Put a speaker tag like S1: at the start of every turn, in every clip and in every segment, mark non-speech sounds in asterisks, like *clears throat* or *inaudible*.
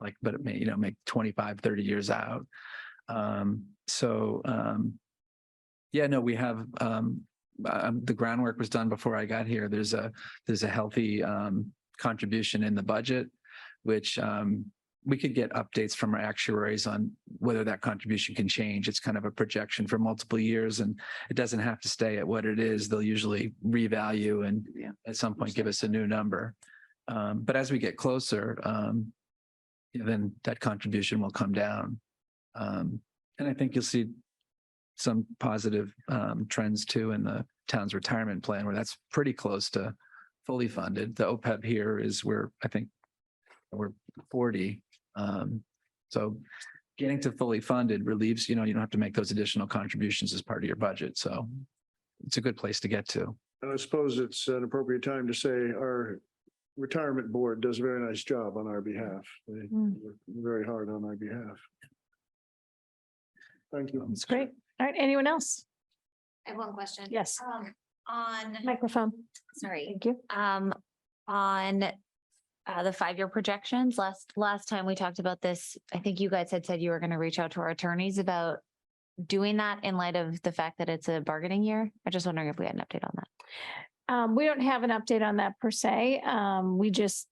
S1: like, but it may, you know, make 25, 30 years out. Um, so, um, yeah, no, we have, um, um, the groundwork was done before I got here. There's a, there's a healthy, um, contribution in the budget, which, um, we could get updates from our actuaries on whether that contribution can change. It's kind of a projection for multiple years and it doesn't have to stay at what it is. They'll usually revalue and
S2: Yeah.
S1: at some point give us a new number. Um, but as we get closer, um, you know, then that contribution will come down. Um, and I think you'll see some positive, um, trends too in the town's retirement plan where that's pretty close to fully funded. The OPEB here is where I think we're forty. Um, so getting to fully funded relieves, you know, you don't have to make those additional contributions as part of your budget. So it's a good place to get to.
S3: And I suppose it's an appropriate time to say our retirement board does a very nice job on our behalf. They
S2: Mm.
S3: work very hard on our behalf. Thank you.
S2: It's great. All right, anyone else?
S4: I have one question.
S2: Yes,
S4: Um, on,
S2: microphone.
S4: sorry,
S2: Thank you.
S4: um, on uh, the five-year projections, last, last time we talked about this, I think you guys had said you were going to reach out to our attorneys about doing that in light of the fact that it's a bargaining year. I'm just wondering if we had an update on that.
S2: Um, we don't have an update on that per se. Um, we just,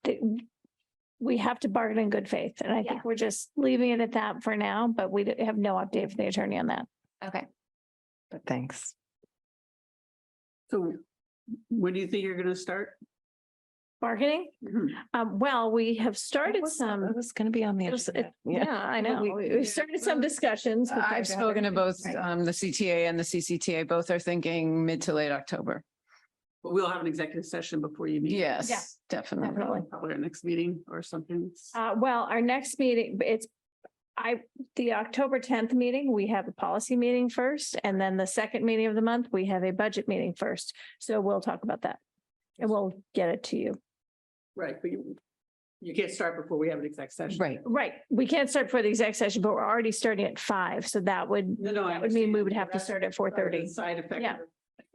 S2: we have to bargain in good faith. And I
S4: Yeah.
S2: think we're just leaving it at that for now, but we have no update from the attorney on that.
S4: Okay.
S5: But thanks.
S6: So when do you think you're gonna start? *clears throat*
S2: Bargaining? Um, well, we have started some,
S5: It was going to be on the.
S2: it was-
S5: agenda.
S2: it- yeah, I know.
S5: we-
S2: We we started some discussions. but
S7: I've
S2: they're-
S7: spoken to both
S2: Right.
S7: um, the CTA and the CCTA. Both are thinking mid to late October.
S6: But we'll have an executive session before you meet.
S7: Yes, definitely.
S2: Definitely.
S6: Probably our next meeting or something.
S2: Uh, well, our next meeting, it's, I, the October tenth meeting, we have a policy meeting first, and then the second meeting of the month, we have a budget meeting first. So we'll talk about that. And we'll get it to you.
S6: Right, but you, you can't start before we have an exec session.
S7: Right.
S2: Right, we can't start for the exec session, but we're already starting at five, so that would,
S6: No, no. I
S2: that would mean we
S6: understand.
S2: would have to
S6: That's
S2: start at four
S6: part of the
S2: thirty.
S6: Side effect.
S2: Yeah.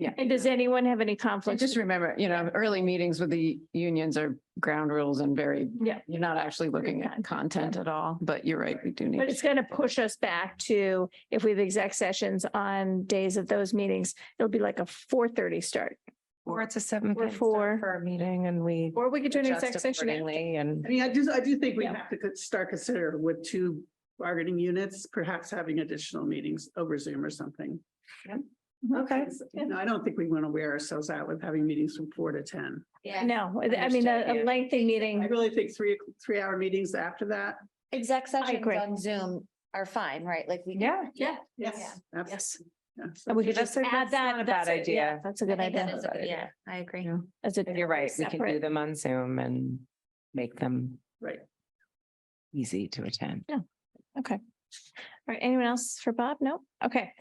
S6: of-
S2: And does anyone have any
S7: I
S2: conflicts?
S7: just remember, you know, early meetings with the unions are ground rules and very,
S2: Yeah.
S7: you're not actually looking at content at all, but you're right, we do need.
S2: But it's going to push us back to, if we have exec sessions on days of those meetings, it'll be like a four thirty start.
S5: Or it's a seven.
S2: Or
S5: p.m. start
S2: four.
S5: For our meeting and we.
S2: Or we could do an
S5: adjust
S2: exec session. at-
S5: accordingly And
S6: I mean, I do, I do think we
S2: Yeah.
S6: have to co- start consider with two bargaining units, perhaps having additional meetings over Zoom or something. Mm-hmm.
S5: Okay.
S6: You know, I don't think we want to wear ourselves out with having meetings from four to ten.
S4: Yeah.
S2: No, I mean,
S5: Understood,
S2: a- a
S5: yeah.
S2: lengthy
S6: I
S2: meeting.
S6: really think three, three hour meetings after that.
S4: Exec sessions
S2: agree.
S4: on Zoom are fine, right? Like we.
S5: yeah,
S2: Yeah.
S6: Yes.
S2: Yes.
S6: Yes.
S2: And we could
S5: That's
S2: just
S5: a-
S2: add
S5: that's not
S2: that.
S5: a
S2: that's
S5: bad
S2: it, yeah,
S5: idea.
S2: That's a
S4: I
S2: good
S4: think that
S2: idea.
S4: is a good- Yeah, I agree.
S2: That's a-
S5: and you're right. We can do
S2: separate.
S5: them on Zoom and make them
S6: Right.
S5: easy to attend.
S2: All right, anyone else for Bob? No? Okay.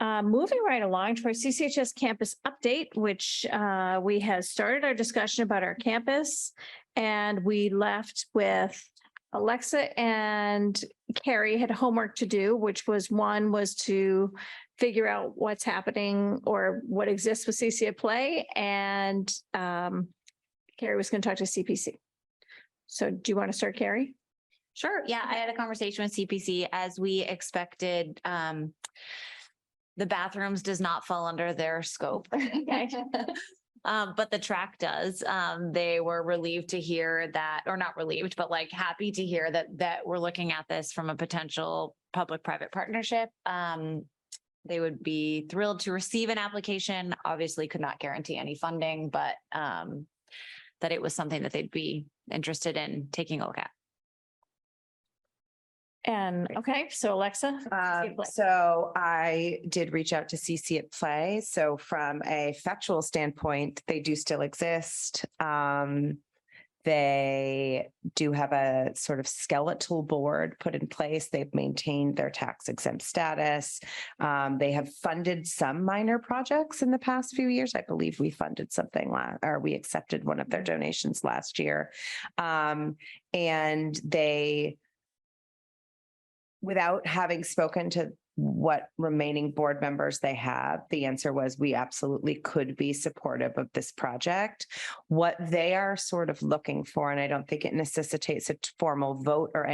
S2: Uh, moving right along to our CCHS campus update, which, uh, we have started our discussion about our campus. And we left with Alexa and Carrie had homework to do, which was one was to figure out what's happening or what exists with CC at Play and, um, Carrie was going to talk to CPC. So do you want to start, Carrie?
S4: Sure, yeah, I had a conversation with CPC as we expected. Um, the bathrooms does not fall under their scope. *laughs*
S2: *laughs*
S4: Um, but the track does. Um, they were relieved to hear that, or not relieved, but like happy to hear that, that we're looking at this from a potential public-private partnership. Um, they would be thrilled to receive an application, obviously could not guarantee any funding, but, um, that it was something that they'd be interested in taking a look at.
S2: And, okay, so Alexa?
S4: *laughs*
S5: Um,
S2: Play.
S5: so I did reach out to CC at Play. So from a factual standpoint, they do still exist. Um, they do have a sort of skeletal board put in place. They've maintained their tax exempt status. Um, they have funded some minor projects in the past few years. I believe we funded something last, or we accepted one of their donations last year. Um, and they without having spoken to what remaining board members they have, the answer was we absolutely could be supportive of this project. What they are sort of looking for, and I don't think it necessitates a t- formal vote or